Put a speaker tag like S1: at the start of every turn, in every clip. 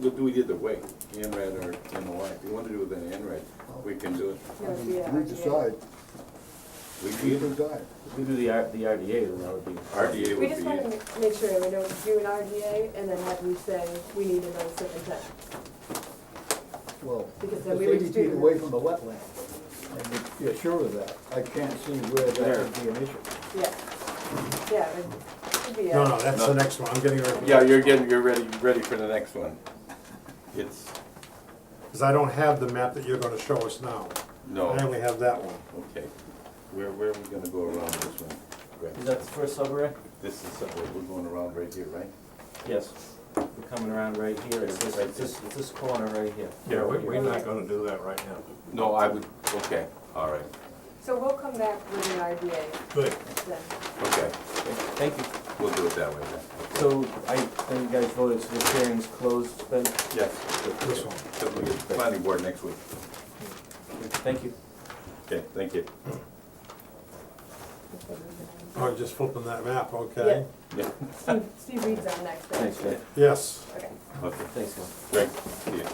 S1: we'll do it either way, NRED or MOI. If you want to do it with an NRED, we can do it.
S2: We decide,
S1: We
S2: we
S1: can,
S2: decide.
S3: If we do the R, the RDA, then that would be.
S1: RDA
S4: We just wanna
S1: would be,
S4: ma- make sure we don't do an RDA and then have you say, we need another superintendent.
S2: Well,
S4: Because
S2: it's
S4: then we would
S2: eighty
S4: do-
S2: feet away from the wetland, and if you're sure of that, I can't see where that would be an issue.
S4: Yeah, yeah, it should be
S5: No,
S4: a,
S5: no, that's the next one, I'm getting rid of
S1: yeah, you're getting, you're ready, ready for the next one. It's,
S5: Because I don't have the map that you're gonna show us now.
S1: no,
S5: I only have that one.
S1: okay. Where, where are we gonna go around this one? Greg?
S3: Is that the first subarray?
S1: This is, somewhere we're going around right here, right?
S3: Yes. We're coming around right here, it's this, it's this, it's this corner right here.
S6: Yeah, we, we're not gonna do that right now.
S1: No, I would, okay, all right,
S4: so we'll come back with an RDA
S6: Good.
S4: then.
S1: okay,
S3: Thank you.
S1: we'll do it that way then.
S3: So I think you guys voted, so this hearing's closed then?
S1: Yes,
S5: This one.
S1: so we get the planning board next week.
S3: Thank you.
S1: Okay, thank you.
S5: I was Oh, just flipping that map, okay?
S1: Yeah,
S4: Steve, Steve reads on next then.
S3: Thanks, Greg.
S5: Yes.
S4: Okay,
S1: okay,
S3: Thanks, Lon.
S1: Greg, yeah,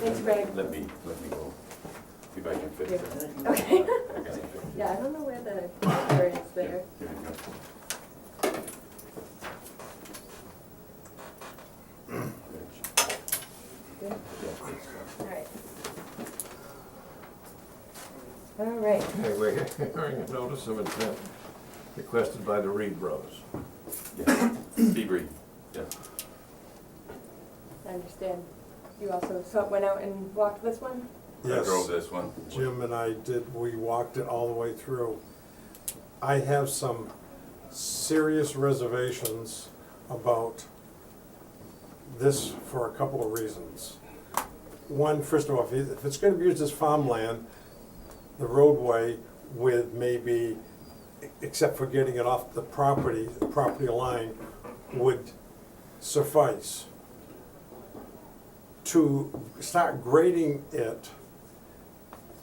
S4: thanks Greg.
S1: let me, let me go, see if I can fit it.
S4: Okay,
S1: I got it.
S4: yeah, I don't know where the where it is
S1: Yeah,
S4: there.
S1: Here you go.
S4: Good.
S1: Yeah, it's, uh,
S4: All right. All right,
S6: Hey, we're hearing a notice of intent requested by the Reed Brothers.
S1: Yeah, Seabree, yeah.
S4: I understand. You also saw- went out and walked this one?
S1: I drove
S5: Yes,
S1: this one.
S5: Jim and I did, we walked it all the way through. I have some serious reservations about this for a couple of reasons. One, first of all, if it- if it's gonna be used as farmland, the roadway with maybe, except for getting it off the property, the property line, would suffice. To start grading it,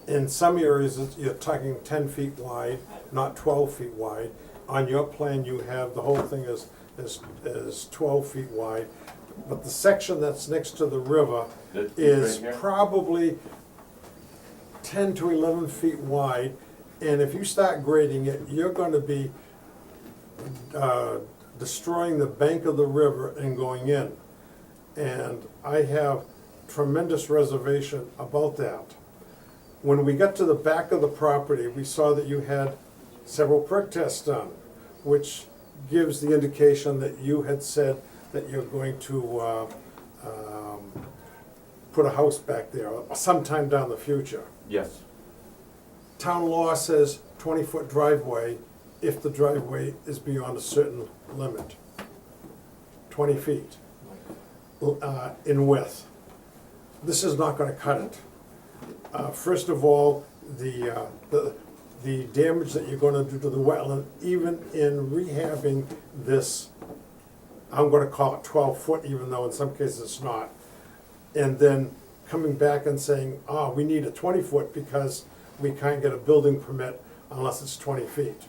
S5: in some areas, it's- you're talking ten feet wide, not twelve feet wide. On your plan, you have, the whole thing is, is, is twelve feet wide. But the section that's next to the river
S1: This-
S5: is
S1: right here?
S5: probably ten to eleven feet wide. And if you start grading it, you're gonna be, uh, destroying the bank of the river and going in. And I have tremendous reservation about that. When we got to the back of the property, we saw that you had several prick tests done, which gives the indication that you had said that you're going to uh, um, put a house back there sometime down the future.
S1: Yes,
S5: Town law says 20-foot driveway if the driveway is beyond a certain limit, 20 feet uh, in width. This is not gonna cut it. Uh, First of all, the, uh, the, the damage that you're gonna do to the wetland, even in rehabbing this, I'm gonna call it 12-foot, even though in some cases it's not, and then coming back and saying, ah, we need a twenty foot because we can't get a building permit unless it's twenty feet,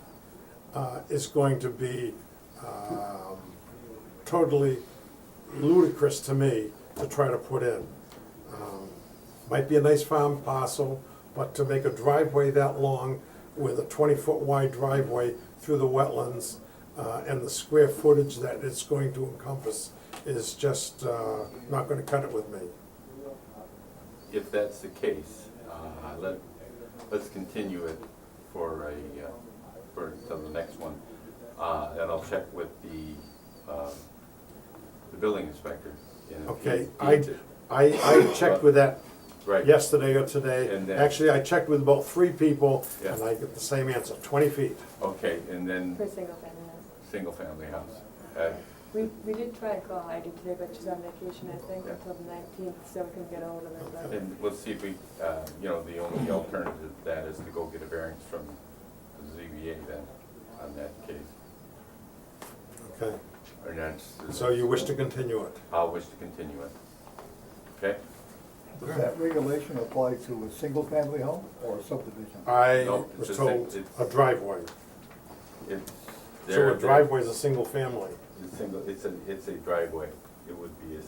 S5: uh, is going to be, um, totally ludicrous to me to try to put in. Um, Might be a nice farm parcel, but to make a driveway that long with a twenty-foot wide driveway through the wetlands, uh, and the square footage that it's going to encompass is just, uh, not gonna cut it with me.
S1: if that's the case, uh, let, let's continue it for a, uh, for, till the next one. Uh, And I'll check with the, um, the building inspector. and if
S5: Okay,
S1: he
S5: I,
S1: deems it-
S5: I, I checked with that
S1: Right.
S5: yesterday or today.
S1: And then-
S5: Actually, I checked with about three people,
S1: Yeah.
S5: and I get the same answer, twenty feet.
S1: Okay, and
S4: For
S1: then,
S4: single family house.
S1: single-family house. Uh,
S4: We, we did try and call Heidi today, but she's on vacation, I think,
S1: Yeah.
S4: until the nineteenth, so we couldn't get hold of her, but.
S1: And we'll see if we, uh, you know, the only alternative to that is to go get a variance from the ZBA then, on that case.
S5: Okay,
S1: Or that's.
S5: so you wish to continue it?
S1: I'll wish to continue it. Okay?
S2: Does that regulation apply to a single-family home or a subdivision?
S5: I
S1: No, it's
S5: was
S1: a
S5: told
S1: sing- it's-
S5: a driveway.
S1: It's.
S5: So
S1: there-
S5: a driveway is a single family.
S1: It's a single, it's a, it's a driveway. It would be a